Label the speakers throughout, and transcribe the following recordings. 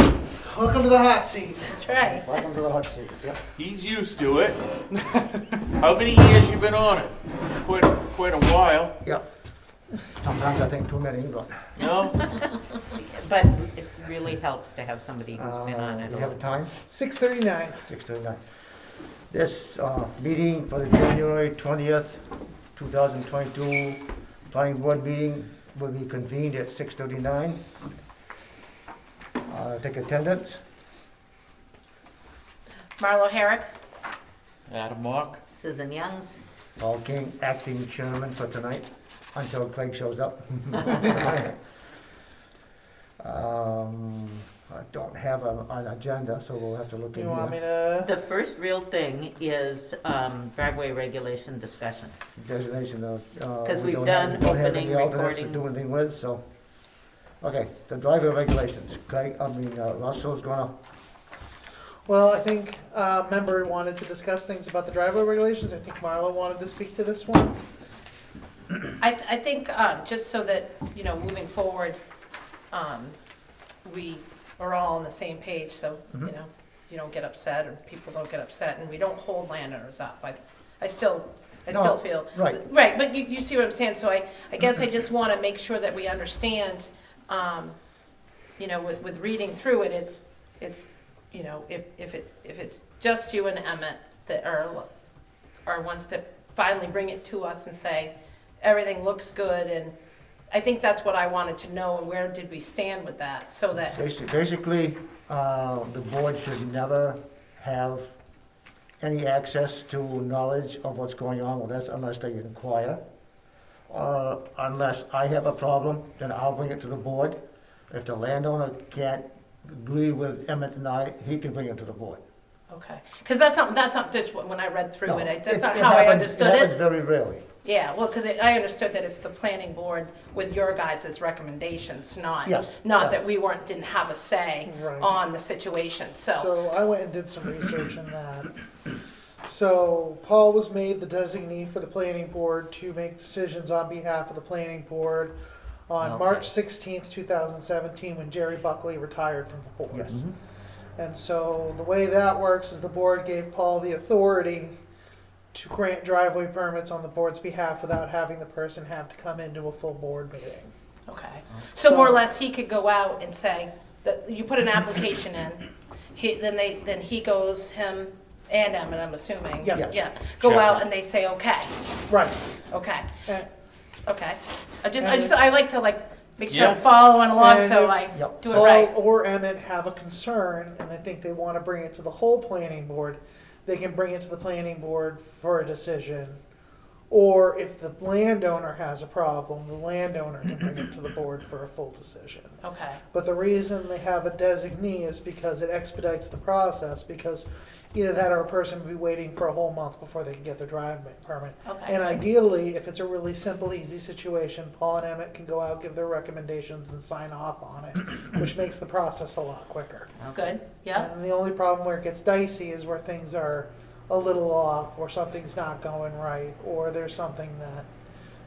Speaker 1: Welcome to the hot seat.
Speaker 2: That's right.
Speaker 3: Welcome to the hot seat. Yep.
Speaker 4: He's used to it. How many years you been on it? Quite, quite a while,
Speaker 3: Yep. Sometimes I think too many, but
Speaker 4: no?
Speaker 5: But it really helps to have somebody who's been on
Speaker 3: uh,
Speaker 5: it.
Speaker 3: we have a time,
Speaker 1: 639.
Speaker 3: six to nine. This uh, meeting for the January twentieth, two thousand twenty-two, planning board meeting will be convened at six thirty-nine. Uh, take attendance.
Speaker 2: Marlo Herrick?
Speaker 4: Adam Mock?
Speaker 5: Susan Youngs,
Speaker 3: Paul King, acting chairman for tonight, until Craig shows up. Um, I don't have a- an agenda, so we'll have to look in
Speaker 1: You
Speaker 3: here.
Speaker 1: want me to?
Speaker 5: the first real thing is um, driveway regulation discussion.
Speaker 3: designation of. uh,
Speaker 5: 'Cause we've done opening, recording.
Speaker 3: Do anything with, so, okay, the driver regulations, Craig, I mean, uh, Russell's gonna,
Speaker 1: Well, I think uh, member wanted to discuss things about the driveway regulations. I think Marla wanted to speak to this one.
Speaker 2: I, th- I think, um, just so that, you know, moving forward, um, we are all on the same page, so,
Speaker 1: Mm-hmm.
Speaker 2: you know, you don't get upset, or people don't get upset, and we don't hold landowners up. I, I still, I
Speaker 3: No,
Speaker 2: still feel.
Speaker 3: right.
Speaker 2: Right, but you, you see what I'm saying, so I, I guess I just wanna make sure that we understand, um, you know, with, with reading through it, it's, it's, you know, if, if it's, if it's just you and Emmett that are, are ones that finally bring it to us and say, everything looks good, and I think that's what I wanted to know, and where did we stand with that, so that,
Speaker 3: basically, basically, uh, the board should never have any access to knowledge of what's going on with us unless they inquire. Or unless I have a problem, then I'll bring it to the board. If the landowner can't agree with Emmett and I, he can bring it to the board.
Speaker 2: okay. Because that's not, that's not, just what- when I read through it, I- that's not
Speaker 3: It- it
Speaker 2: how I
Speaker 3: happens-
Speaker 2: understood
Speaker 3: It
Speaker 2: it.
Speaker 3: happens very rarely.
Speaker 2: Yeah, well, because I understood that it's the planning board with your guys' recommendations, not,
Speaker 3: Yes,
Speaker 2: not
Speaker 3: right.
Speaker 2: that we weren't, didn't have a say
Speaker 1: Right.
Speaker 2: on the situation, so,
Speaker 1: So I went and did some research on that. So Paul was made the designee for the planning board to make decisions on behalf of the planning board on
Speaker 4: Okay.
Speaker 1: March sixteenth, two thousand seventeen, when Jerry Buckley retired from the board.
Speaker 3: Yes.
Speaker 4: Mm-hmm.
Speaker 1: And so the way that works is the board gave Paul the authority to grant driveway permits on the board's behalf without having the person have to come into a full board meeting.
Speaker 2: okay. So more or
Speaker 1: So-
Speaker 2: less, he could go out and say, that, you put an application in, he, then they, then he goes, him and Emmett, I'm assuming.
Speaker 1: Yeah.
Speaker 3: Yeah.
Speaker 2: Yeah, go
Speaker 4: Sure.
Speaker 2: out and they say, okay,
Speaker 1: Right.
Speaker 2: okay,
Speaker 1: And-
Speaker 2: okay. I just, I
Speaker 1: And-
Speaker 2: just, I like to like, make sure I'm
Speaker 4: Yeah.
Speaker 2: following along,
Speaker 1: And
Speaker 2: so
Speaker 1: if-
Speaker 2: I
Speaker 3: Yep.
Speaker 2: do it
Speaker 1: Paul
Speaker 2: right.
Speaker 1: or Emmett have a concern and they think they want to bring it to the whole planning board, they can bring it to the planning board for a decision. Or if the landowner has a problem, the landowner can bring it to the board for a full decision.
Speaker 2: Okay,
Speaker 1: But the reason they have a designee is because it expedites the process, because either that or a person will be waiting for a whole month before they can get their driveway permit. And
Speaker 2: okay,
Speaker 1: ideally, if it's a really simple, easy situation, Paul and Emmett can go out, give their recommendations, and sign off on it, which makes the process a lot quicker.
Speaker 2: good, yeah,
Speaker 1: And the only problem where it gets dicey is where things are a little off, or something's not going right, or there's something that,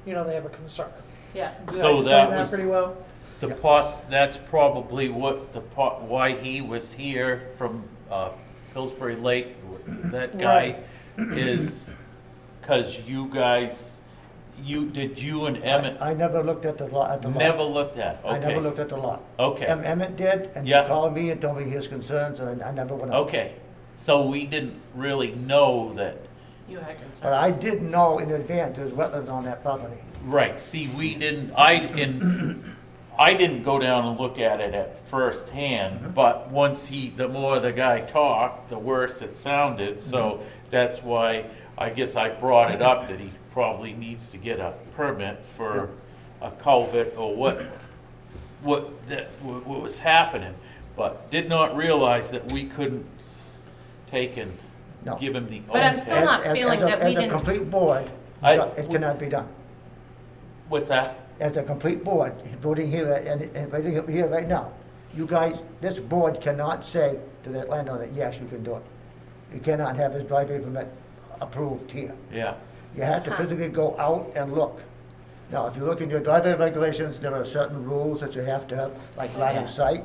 Speaker 1: you know, they have a concern.
Speaker 2: yeah.
Speaker 1: Did I
Speaker 4: So
Speaker 1: explain
Speaker 4: that was-
Speaker 1: Pretty well?
Speaker 4: The pos, that's probably what the pot, why he was here from, uh, Pillsbury Lake. That guy is, cause you guys, you, did you and Emmett
Speaker 3: I never looked at the lot, at the lot.
Speaker 4: never looked at?
Speaker 3: I never
Speaker 4: Okay,
Speaker 3: looked at the lot.
Speaker 4: Okay.
Speaker 3: Em- Emmett did, and he
Speaker 4: Yeah.
Speaker 3: called me and told me his concerns, and I never went out.
Speaker 4: okay. So we didn't really know that,
Speaker 2: You had concerns.
Speaker 3: But I did know in advance there's wetlands on that property.
Speaker 4: right, see, we didn't, I, in, I didn't go down and look at it at first hand, but once he, the more the guy talked, the worse it sounded, so that's why I guess I brought it up that he probably needs to get a permit for a culvert or what, what, that, what what was happening, but did not realize that we couldn't s- take and
Speaker 3: No.
Speaker 4: give him the.
Speaker 2: But I'm
Speaker 4: old
Speaker 2: still
Speaker 4: one.
Speaker 3: As-
Speaker 2: not
Speaker 3: as-
Speaker 2: feeling
Speaker 3: as a-
Speaker 2: that we didn't-
Speaker 3: As a complete board,
Speaker 4: I-
Speaker 3: it cannot be done.
Speaker 4: What's that?
Speaker 3: As a complete board, voting here and, and voting here right now, you guys, this board cannot say to that landowner, yes, you can do it. You cannot have his driveway permit approved here.
Speaker 4: Yeah,
Speaker 3: You have to physically go out and look.
Speaker 2: Oh,
Speaker 3: Now, if you look in your driveway regulations, there are certain rules that you have to have, like line of sight,